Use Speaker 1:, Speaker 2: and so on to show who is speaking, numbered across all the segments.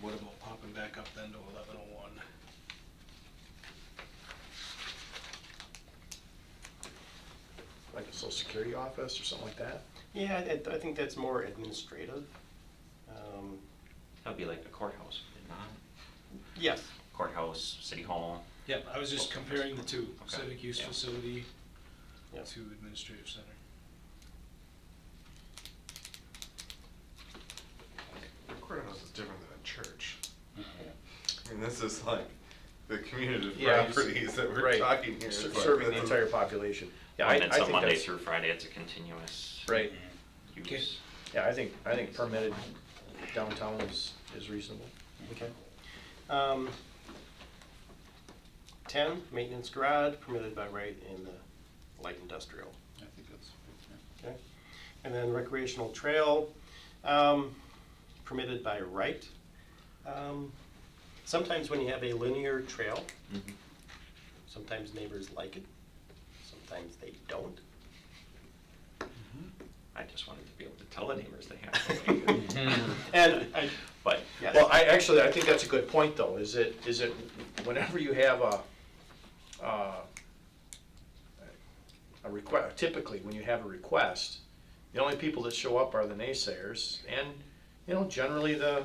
Speaker 1: What about popping back up then to eleven oh one?
Speaker 2: like a social security office or something like that?
Speaker 3: Yeah, I, I think that's more administrative. Um,
Speaker 4: That'd be like a courthouse, would it not?
Speaker 3: Yes,
Speaker 4: Courthouse, city hall.
Speaker 1: Yep, I was just comparing the two,
Speaker 4: Okay.
Speaker 1: civic use
Speaker 4: Yeah.
Speaker 1: facility
Speaker 3: Yeah.
Speaker 1: to administrative center.
Speaker 5: The courthouse is different than a church.
Speaker 2: Mm-hmm.
Speaker 5: I mean, this is like the community of
Speaker 2: Yeah,
Speaker 5: properties that we're
Speaker 2: right.
Speaker 5: talking here.
Speaker 2: Ser-
Speaker 5: It's like
Speaker 2: Serving the
Speaker 5: this is-
Speaker 2: entire population. Yeah, I, I
Speaker 4: And then
Speaker 2: think
Speaker 4: so
Speaker 2: that's.
Speaker 4: Monday through Friday, it's a continuous
Speaker 2: Right,
Speaker 1: Okay.
Speaker 4: use.
Speaker 2: yeah, I think, I think permitted downtown is, is reasonable.
Speaker 3: okay. Um, ten, maintenance garage permitted by right in the light industrial.
Speaker 6: I think that's, yeah.
Speaker 3: Okay. And then recreational trail, um, permitted by right. Um, Sometimes when you have a linear trail,
Speaker 4: Mhm.
Speaker 3: sometimes neighbors like it, sometimes they don't.
Speaker 4: I just wanted to be able to tell the neighbors they have.
Speaker 3: And I,
Speaker 4: But,
Speaker 3: yes.
Speaker 2: Well, I, actually, I think that's a good point, though, is it, is it, whenever you have a, uh, a request, typically, when you have a request, the only people that show up are the naysayers, and, you know, generally, the,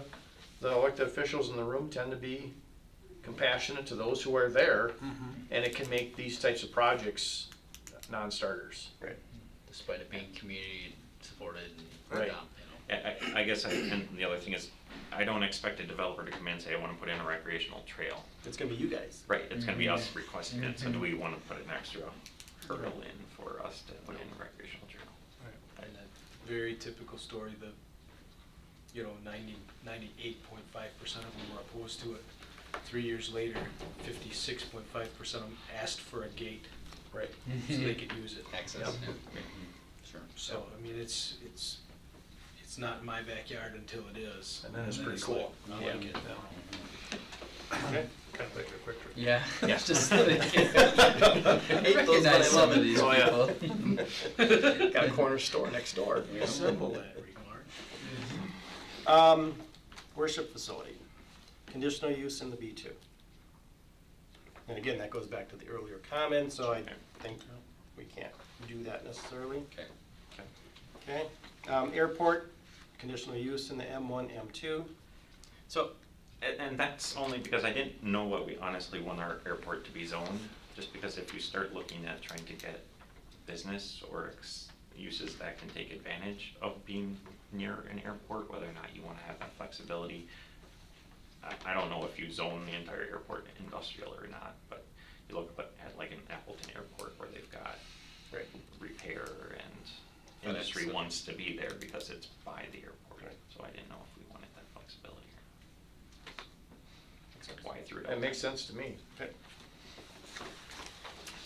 Speaker 2: the elected officials in the room tend to be compassionate to those who are there, and it can make these types of projects non-starters.
Speaker 3: Right.
Speaker 7: despite it being community supported and
Speaker 2: Right.
Speaker 7: um, you know.
Speaker 4: I, I- I guess, I- and the other thing is, I don't expect a developer to come in and say, I wanna put in a recreational trail.
Speaker 3: It's gonna be you guys.
Speaker 4: Right, it's gonna be us requesting it, so do we wanna put an extra hurdle in for us to put in a recreational trail?
Speaker 1: Right, And that very typical story, the, you know, ninety, ninety-eight point five percent of them were opposed to it. Three years later, fifty-six point five percent of them asked for a gate. Right. So they could use it.
Speaker 7: Access.
Speaker 1: Yep.
Speaker 6: Sure.
Speaker 1: So, I mean, it's, it's, it's not in my backyard until it is.
Speaker 2: And then it's pretty
Speaker 1: like,
Speaker 2: cool.
Speaker 1: I like it.
Speaker 5: Kind of like a quick trip.
Speaker 6: Yeah.
Speaker 4: Yeah.
Speaker 6: Just like- Hate those, but I love it. These
Speaker 2: Oh, yeah.
Speaker 6: people.
Speaker 2: Got a corner store next door.
Speaker 1: Assemble that remark.
Speaker 3: Um, worship facility, conditional use in the B two. And again, that goes back to the earlier comment, so I think we can't do that necessarily.
Speaker 6: Okay.
Speaker 3: Okay, um, airport, conditional use in the M one, M two.
Speaker 4: So, and, and that's only because I didn't know what we honestly want our airport to be zoned, just because if you start looking at trying to get business or ex- uses that can take advantage of being near an airport, whether or not you wanna have that flexibility. I, I don't know if you zone the entire airport industrial or not, but you look up at like an Appleton Airport where they've got
Speaker 3: Right.
Speaker 4: repair and
Speaker 7: But
Speaker 4: industry
Speaker 7: it's-
Speaker 4: wants to be there because it's by the airport,
Speaker 3: Right.
Speaker 4: so I didn't know if we wanted that flexibility. Except why I threw it out.
Speaker 2: That
Speaker 4: there.
Speaker 2: makes sense to me.
Speaker 3: Okay.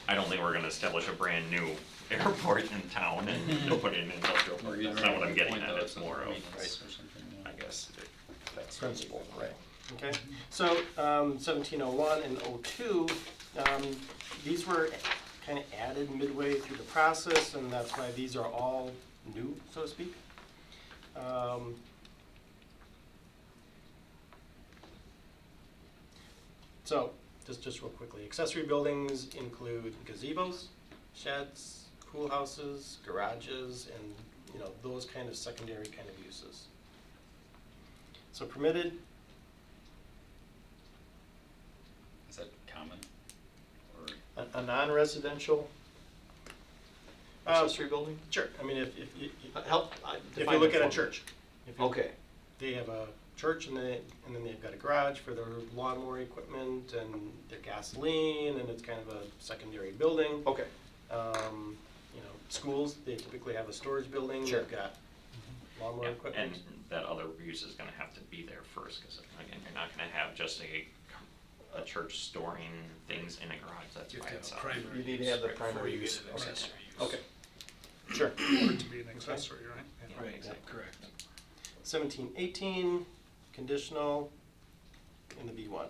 Speaker 4: I don't think we're gonna establish a brand new airport in town and put in an industrial park, that's not what I'm getting at, it's more of, I guess,
Speaker 2: That's
Speaker 3: Principle, right. Okay, so, um, seventeen oh one and oh two, um, these were kinda added midway through the process, and that's why these are all new, so to speak. Um, So, just, just real quickly, accessory buildings include gazebos, sheds, pool houses, garages, and, you know, those kind of secondary kind of uses. So permitted,
Speaker 7: Is that common? Or
Speaker 2: A, a non-residential
Speaker 3: Uh,
Speaker 2: accessory building?
Speaker 3: Sure, I mean, if, if you,
Speaker 2: Uh, Help, uh,
Speaker 3: if
Speaker 2: define
Speaker 3: you look
Speaker 2: that
Speaker 3: at a
Speaker 2: for me.
Speaker 3: church. if you-
Speaker 2: Okay,
Speaker 3: They have a church and they, and then they've got a garage for their lawnmower equipment and their gasoline, and it's kind of a secondary building.
Speaker 2: okay.
Speaker 3: Um, you know, schools, they typically have a storage building,
Speaker 2: Sure.
Speaker 3: they've got lawnmower
Speaker 4: Yeah, And
Speaker 3: equipment.
Speaker 4: that other use is gonna have to be there first, cause again, you're not gonna have just a, a church storing things in a garage, that's
Speaker 1: You
Speaker 4: by
Speaker 1: have to have
Speaker 4: itself.
Speaker 1: primary
Speaker 2: You need to
Speaker 1: use
Speaker 2: have the
Speaker 1: before
Speaker 2: primary
Speaker 1: you get
Speaker 2: use.
Speaker 1: to the
Speaker 2: Okay.
Speaker 1: accessory use.
Speaker 2: Okay, sure.
Speaker 6: To be an accessory, right?
Speaker 4: Yeah,
Speaker 1: Right,
Speaker 4: exactly.
Speaker 1: correct.
Speaker 3: Seventeen eighteen, conditional in the B one.